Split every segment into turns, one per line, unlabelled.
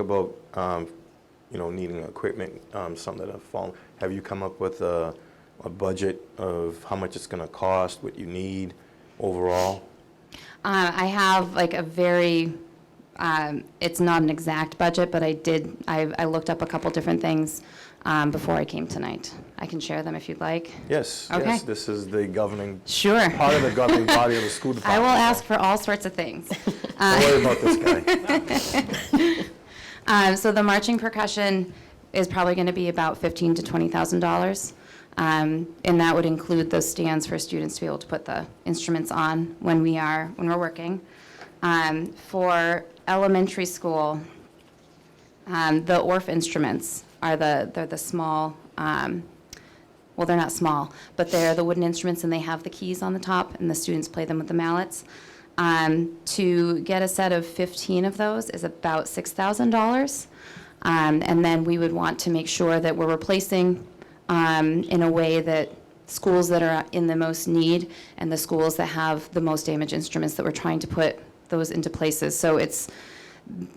about, um, you know, needing equipment, um, some that have fallen, have you come up with a, a budget of how much it's gonna cost, what you need overall?
Uh, I have like a very, um, it's not an exact budget, but I did, I, I looked up a couple different things um, before I came tonight. I can share them if you'd like.
Yes,
Okay.
yes, this is the governing,
Sure.
part of the governing body of the school
I
department.
will ask uh, for all sorts of things.
Don't worry about this guy.
Um, so the marching percussion is probably going to be about fifteen to twenty thousand dollars, um, and that would include those stands for students to be able to put the instruments on when we are when we're working. Um, for elementary school, um, the ORF instruments are the they're the small. Um, well, they're not small, but they're the wooden instruments and they have the keys on the top, and the students play them with the mallets. Um, to get a set of 15 of those is about $6,000. Um, and then we would want to make sure that we're replacing um, in a way that schools that are in the most need and the schools that have the most damaged instruments that we're trying to put those into places. So it's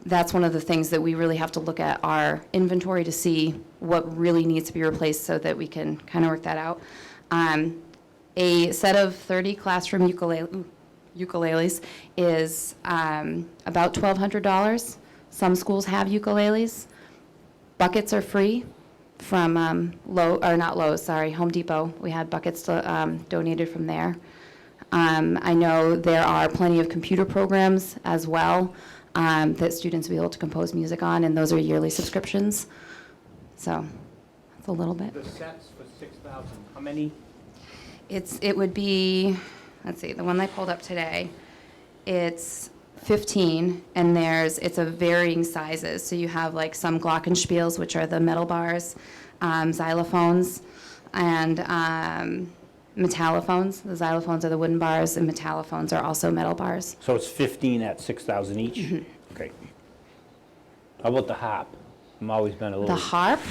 that's one of the things that we really have to look at our inventory to see what really needs to be replaced so that we can kind of work that out. Um, a set of 30 classroom ukulele, ukuleles is um, about $1,200. Some schools have ukuleles. Buckets are free from um, Low, or not Lowe's, sorry, Home Depot. We had buckets um, donated from there. Um, I know there are plenty of computer programs as well um, that students will be able to compose music on, and those are yearly subscriptions. So that's a little bit.
The sets for six thousand, how many?
It's, it would be, let's see, the one I pulled up today, it's 15, and there's, it's a varying sizes. So you have like some glockenspiels, which are the metal bars, um, xylophones, and um, metallophones. The xylophones are the wooden bars, and metallophones are also metal bars.
So it's fifteen at six thousand each?
Mm-hmm.
Okay. How about the harp? I'm always been a
The
little.
harp,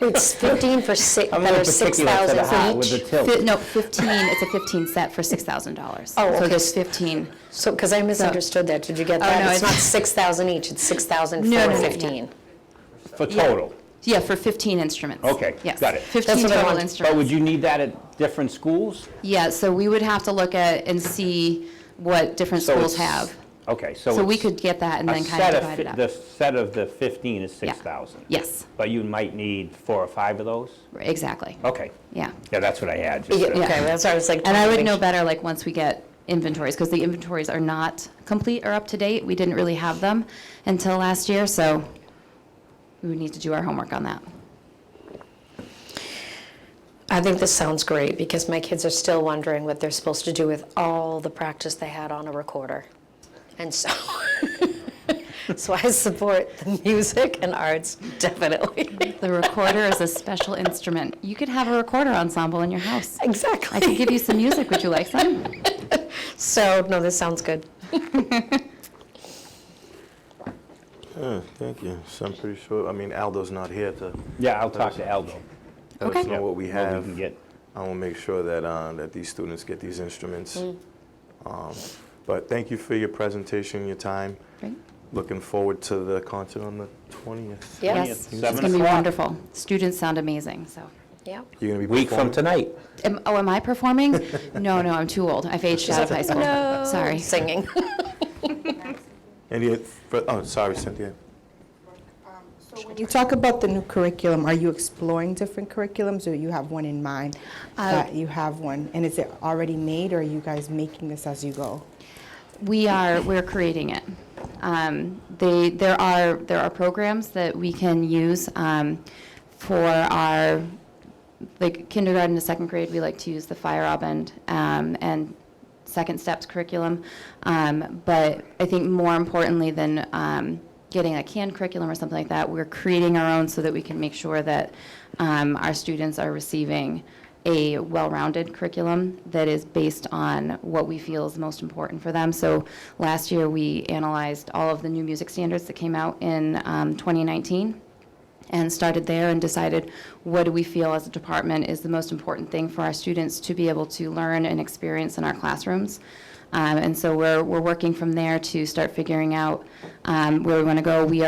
It's 15 for six,
I'm
that
a
are
little particular for the harp
6,000
with the
each.
fi-
tilt.
no, 15, it's a 15 set for $6,000.
Oh,
So
okay.
there's 15.
So, because I misunderstood that, did you get
Oh, no,
that? It's not
it's-
6,000 each, it's 6,000
No,
for
no, no, no.
15.
For total.
Yeah, for 15 instruments.
Okay,
Yes.
got it. That's
15
what I
total
wanted.
instruments.
But would you need that at different schools?
Yeah, so we would have to look at and see what different
So
schools
it's-
have.
Okay, so
So we
it's
could get that and
a
then kind
set
of
of
divide
fi-
it
The
up.
set of the fifteen is six thousand?
Yes,
But you might need four or five of those?
exactly,
Okay,
yeah.
yeah, that's what I had. just
Yeah,
to-
Okay, that's what I was like.
And I
trying to
would
make
know
sure.
better, like, once we get inventories, because the inventories are not complete or up to date. We didn't really have them until last year, so we would need to do our homework on that.
I think this sounds great, because my kids are still wondering what they're supposed to do with all the practice they had on a recorder. And so, so I support the music and arts, definitely.
The recorder is a special instrument. You could have a recorder ensemble in your house. I could
Exactly.
give you some music. Would you like some?
So, no, this sounds good.
Yeah, thank you. So I'm pretty sure, I mean, Aldo's not here to
Yeah, I'll talk to Aldo.
let us
Okay.
know what we
What we
have.
can get.
I will make sure that, uh, that these students get these instruments.
Mm.
Um, But thank you for your presentation, your time.
Great.
Looking forward to the concert on the 20th.
Yeah.
Yes,
Yes.
it's
Seven
going to be
o'clock.
wonderful. Students sound amazing, so.
Yeah.
You're gonna be
Week from
performing?
tonight.
Am- Oh, am I performing? No, no, I'm too old. I've aged out of high school. Sorry.
Singing.
Any, fur- oh, sorry, Cynthia.
So When you talk about the new curriculum, are you exploring different curriculums, or you have one in mind? That you have one, and is it already made, or are you guys making this as you go?
We are, we're creating it. Um, They, there are, there are programs that we can use um, for our, like kindergarten to second grade, we like to use the Fire Robin um, and Second Steps curriculum. Um, But I think more importantly than um, getting a canned curriculum or something like that, we're creating our own so that we can make sure that um, our students are receiving a well-rounded curriculum that is based on what we feel is most important for them. So last year, we analyzed all of the new music standards that came out in um, 2019 and started there and decided what do we feel as a department is the most important thing for our students to be able to learn and experience in our classrooms. Um, and so we're, we're working from there to start figuring out um, where we want to go. We